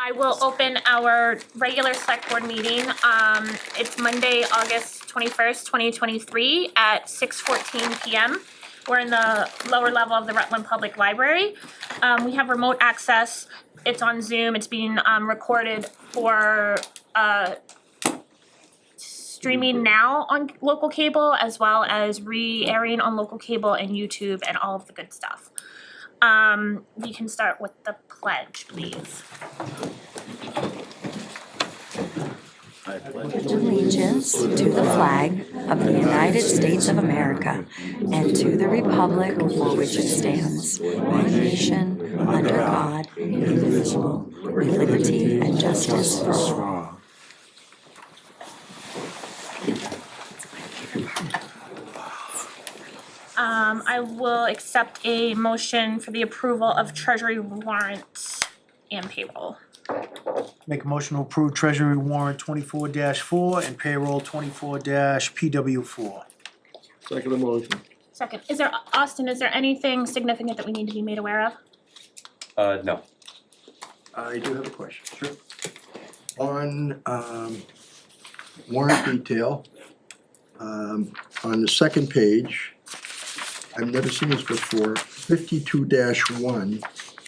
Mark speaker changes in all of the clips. Speaker 1: I will open our regular select board meeting. Um, it's Monday, August twenty-first, twenty twenty-three at six fourteen P M. We're in the lower level of the Rutland Public Library. Um, we have remote access. It's on Zoom. It's being, um, recorded for, uh, streaming now on local cable as well as re-airing on local cable and YouTube and all of the good stuff. Um, we can start with the pledge, please.
Speaker 2: allegiance to the flag of the United States of America and to the republic for which it stands, one nation, under God, indivisible, with liberty and justice for all.
Speaker 1: Um, I will accept a motion for the approval of treasury warrants and payroll.
Speaker 3: Make a motion to approve Treasury warrant twenty-four four and payroll twenty-four PW four.
Speaker 4: Second motion.
Speaker 1: Second, is there, Austin, is there anything significant that we need to be made aware of?
Speaker 5: Uh, no.
Speaker 4: I do have a question. Sure. On um warrant detail, um on the second page, I've never seen this before, fifty-two one,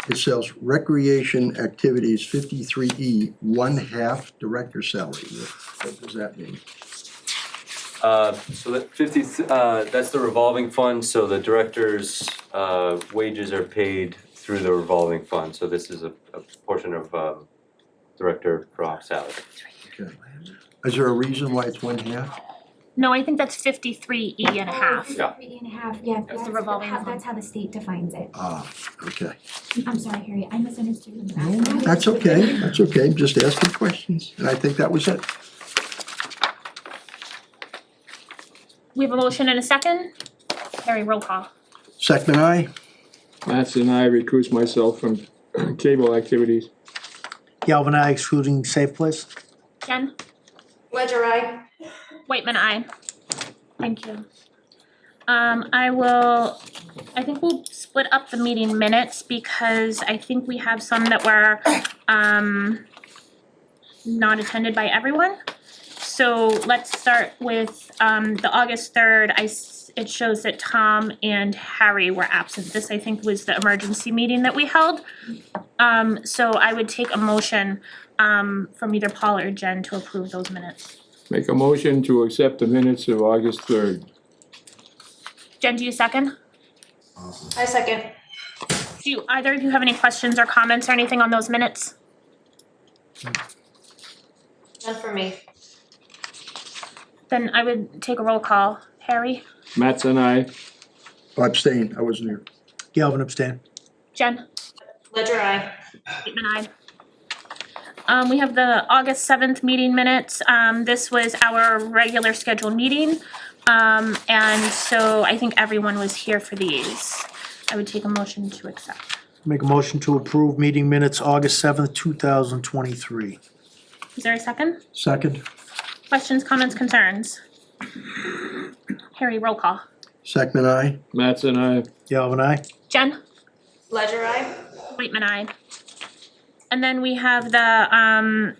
Speaker 4: it says recreation activities fifty-three E, one half director salary. What what does that mean?
Speaker 5: Uh, so that fifty, uh, that's the revolving fund, so the director's, uh, wages are paid through the revolving fund, so this is a, a portion of, um, director drop salary.
Speaker 4: Okay. Is there a reason why it's one half?
Speaker 1: No, I think that's fifty-three E and a half.
Speaker 5: Yeah.
Speaker 6: Three and a half, yeah, that's
Speaker 1: revolving
Speaker 6: how,
Speaker 1: loan.
Speaker 6: that's how the state defines it.
Speaker 4: Ah, okay.
Speaker 6: I'm sorry, Harry, I misunderstood you.
Speaker 4: That's okay, that's okay, I'm just asking questions, and I think that was it.
Speaker 1: We have a motion and a second? Harry, roll call.
Speaker 4: Second I.
Speaker 7: Mattson and I recuse myself from cable activities.
Speaker 3: Galvin I excluding safe place.
Speaker 1: Jen?
Speaker 8: Ledger I.
Speaker 1: Whitman, I. Thank you. Um, I will, I think we'll split up the meeting minutes because I think we have some that were, um, not attended by everyone. So let's start with, um, the August third, I, s- it shows that Tom and Harry were absent. This, I think, was the emergency meeting that we held. Um, so I would take a motion, um, from either Paul or Jen to approve those minutes.
Speaker 7: Make a motion to accept the minutes of August third.
Speaker 1: Jen, do you second?
Speaker 8: I second.
Speaker 1: Do you- either of you have any questions or comments or anything on those minutes?
Speaker 8: None for me.
Speaker 1: Then I would take a roll call. Harry?
Speaker 7: Mattson and I,
Speaker 4: Oh, Abstain, I wasn't here.
Speaker 3: Galvin abstain.
Speaker 1: Jen?
Speaker 8: Ledger I.
Speaker 1: Bateman, aye. Um, we have the August seventh meeting minutes. Um, this was our regular scheduled meeting. Um, and so I think everyone was here for these. I would take a motion to accept.
Speaker 3: Make a motion to approve meeting minutes August seventh, two thousand twenty-three.
Speaker 1: Is there a second?
Speaker 4: Second,
Speaker 1: Questions, comments, concerns? Harry, roll call.
Speaker 4: second I.
Speaker 7: Mattson and I,
Speaker 3: Galvin I.
Speaker 1: Jen?
Speaker 8: Ledger I.
Speaker 1: Waitman, aye. And then we have the, um,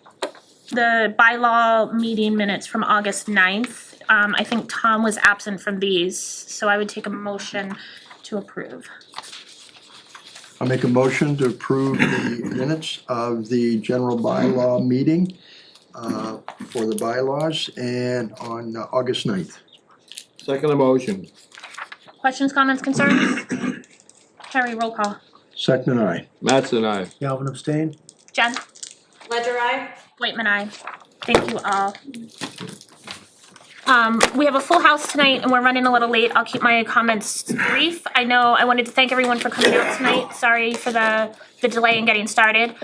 Speaker 1: the bylaw meeting minutes from August 9th. Um, I think Tom was absent from these, so I would take a motion to approve.
Speaker 4: I'll make a motion to approve the minutes of the general bylaw meeting uh, for the bylaws and on uh, August 9th.
Speaker 7: second motion.
Speaker 1: Questions, comments, concerns? Harry, roll call.
Speaker 4: Second I.
Speaker 7: Mattson and I.
Speaker 3: Galvin abstain.
Speaker 1: Jen?
Speaker 8: Ledger I.
Speaker 1: Waitman, aye. Thank you all. Um, we have a full house tonight and we're running a little late. I'll keep my comments brief. I know I wanted to thank everyone for coming out tonight. Sorry for the, the delay in getting started.